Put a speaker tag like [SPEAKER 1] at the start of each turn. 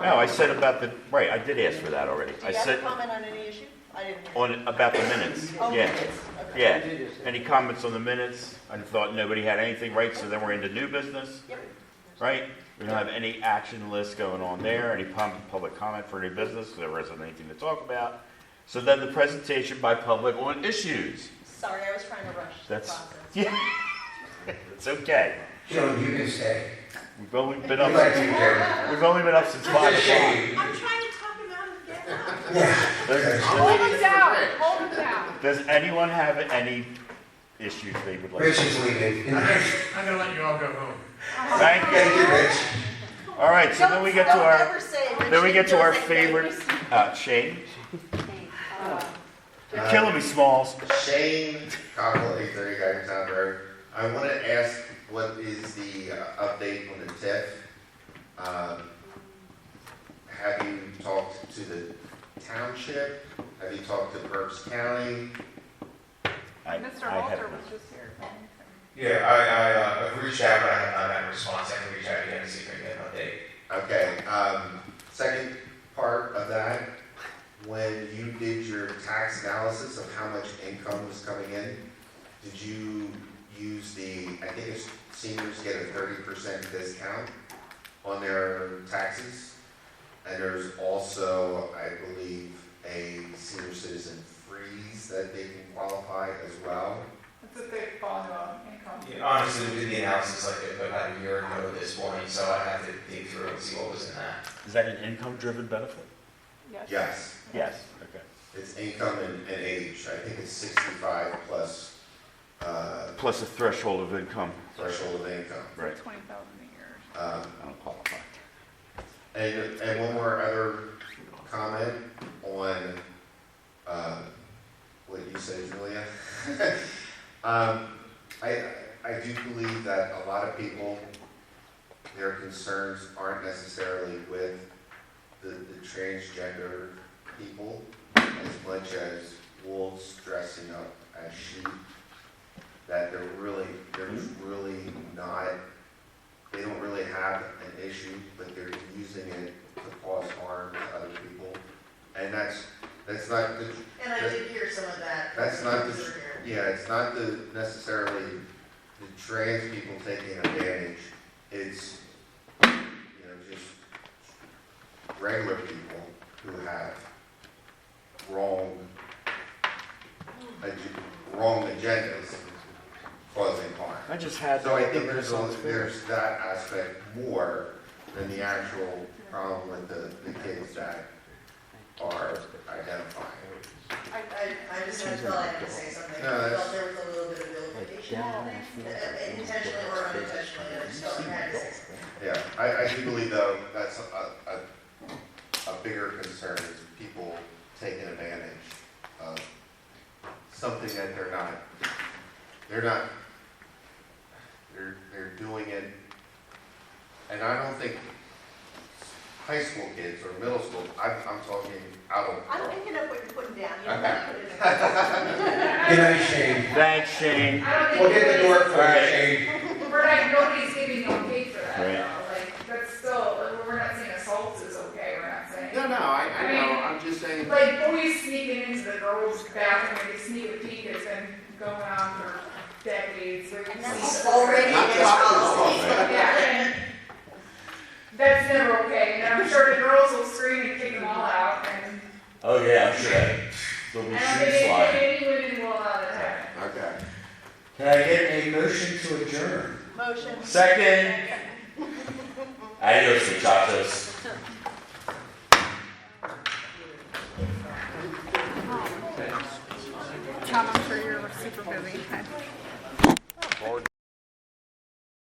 [SPEAKER 1] No, I said about the, right, I did ask for that already.
[SPEAKER 2] Do
[SPEAKER 1] I
[SPEAKER 2] you have
[SPEAKER 1] said
[SPEAKER 2] a comment on any issue? I didn't hear.
[SPEAKER 1] on, about the minutes,
[SPEAKER 2] Oh,
[SPEAKER 1] yeah.
[SPEAKER 2] minutes, okay.
[SPEAKER 1] Yeah. Any comments on the minutes? I thought nobody had anything, right? So then we're into new business,
[SPEAKER 2] Yep.
[SPEAKER 1] right? We don't have any action list going on there, any pub- public comment for new business, there wasn't anything to talk about. So then the presentation by public on issues.
[SPEAKER 2] Sorry, I was trying to rush the
[SPEAKER 1] That's-
[SPEAKER 2] process.
[SPEAKER 1] Yeah, it's okay.
[SPEAKER 3] Joe, you can stay.
[SPEAKER 1] We've only
[SPEAKER 3] I'd
[SPEAKER 1] been up,
[SPEAKER 3] like to
[SPEAKER 1] since-
[SPEAKER 3] be there.
[SPEAKER 1] we've only been up since five
[SPEAKER 3] Just
[SPEAKER 1] o'clock.
[SPEAKER 3] shake.
[SPEAKER 4] I'm trying to talk him out of getting up.
[SPEAKER 1] There's-
[SPEAKER 5] Hold it down, hold it down.
[SPEAKER 1] Does anyone have any issues they would like?
[SPEAKER 3] Rich
[SPEAKER 1] to
[SPEAKER 3] is leaving.
[SPEAKER 6] I'm gonna let you all go home.
[SPEAKER 1] Thank you.
[SPEAKER 3] Thank you, Rich.
[SPEAKER 1] All right, so then we get to
[SPEAKER 2] Don't
[SPEAKER 1] our,
[SPEAKER 2] ever say it.
[SPEAKER 1] then we get to our
[SPEAKER 2] Richard
[SPEAKER 1] favorite,
[SPEAKER 2] doesn't
[SPEAKER 1] uh, Shane. You're
[SPEAKER 7] Uh,
[SPEAKER 1] killing me, Smalls.
[SPEAKER 7] Shane Cockle, eight thirty guidance Town Road. I want to ask, what is the uh, update on the TIF? Um, Have you talked to the township? Have you talked to Burbs County?
[SPEAKER 1] I-
[SPEAKER 5] Mr.
[SPEAKER 1] I have
[SPEAKER 5] Halter
[SPEAKER 1] not.
[SPEAKER 5] was just here.
[SPEAKER 8] Yeah, I, I, uh, I've reached out, but I have not had a response, I can reach out again to see if I can get an update.
[SPEAKER 7] Okay, um, second part of that, when you did your tax analysis of how much income was coming in, did you use the, I think it's seniors get a thirty percent discount on their taxes? And there's also, I believe, a senior citizen freeze that they can qualify as well.
[SPEAKER 5] It's a big volume of income.
[SPEAKER 8] Yeah, Honestly, we did the analysis like about a year ago at this point, so I'd have to dig through and see what was in that.
[SPEAKER 1] Is that an income-driven benefit?
[SPEAKER 7] Yes,
[SPEAKER 1] Yes, okay.
[SPEAKER 7] it's income and, and age, I think it's sixty-five plus, uh,
[SPEAKER 1] Plus a threshold of income.
[SPEAKER 7] threshold of income.
[SPEAKER 1] Right,
[SPEAKER 5] Twenty thousand a year.
[SPEAKER 7] Um,
[SPEAKER 1] I don't qualify.
[SPEAKER 7] And, and one more other comment on, uh, what you said, Julia. Um, I, I do believe that a lot of people, their concerns aren't necessarily with the, the transgender people as much as wolves dressing up as sheep. That they're really, they're really not they don't really have an issue, but they're using it to cause harm to other people. And that's, that's not the,
[SPEAKER 2] And I did hear some of that.
[SPEAKER 7] That's not the-
[SPEAKER 2] We were here.
[SPEAKER 7] yeah, it's not the necessarily the trans people taking advantage. It's, you know, just regular people who have wrong, ag- wrong agendas causing harm.
[SPEAKER 1] I just had.
[SPEAKER 7] So I think there's, a- there's that aspect more than the actual problem with the, the kids that are identifying.
[SPEAKER 2] I, I, I just felt I had to say something.
[SPEAKER 7] No,
[SPEAKER 2] I
[SPEAKER 7] that's-
[SPEAKER 2] felt there was a little bit of vilification happening, uh, intentionally or unintentionally, I just felt I had to say something.
[SPEAKER 7] Yeah, I, I do believe though, that's a, a, a bigger concern is people taking advantage of something that they're not, they're not, they're, they're doing it. And I don't think high school kids or middle school, I'm, I'm talking out of.
[SPEAKER 2] I'm picking up what you're putting down, you know,
[SPEAKER 7] Okay.
[SPEAKER 2] put it in.
[SPEAKER 3] Good night, Shane.
[SPEAKER 1] Thanks, Shane.
[SPEAKER 5] I
[SPEAKER 3] We'll get the door for you, Shane.
[SPEAKER 5] We're not, nobody's giving no pay for that,
[SPEAKER 1] Right.
[SPEAKER 5] though, like, that's still, like, we're not saying assault is okay, we're not saying.
[SPEAKER 7] No, no, I, I know, I'm just saying.
[SPEAKER 5] Like, boys sneaking into the girls' bathroom, they sneak a peek, it's been going on for decades, like.
[SPEAKER 2] And
[SPEAKER 5] it's-
[SPEAKER 2] that's already
[SPEAKER 7] Not
[SPEAKER 2] against
[SPEAKER 7] just-
[SPEAKER 2] policy.
[SPEAKER 5] Yeah, and that's never okay, and I'm sure the girls will scream and kick them all out, and
[SPEAKER 1] Oh, yeah, I'm sure.
[SPEAKER 5] I don't think any, any women will allow that to happen.
[SPEAKER 7] Okay.
[SPEAKER 3] Can I get a motion to adjourn?
[SPEAKER 2] Motion.
[SPEAKER 6] Second. Adios, muchachos.
[SPEAKER 5] Tom, I'm sure you're super busy.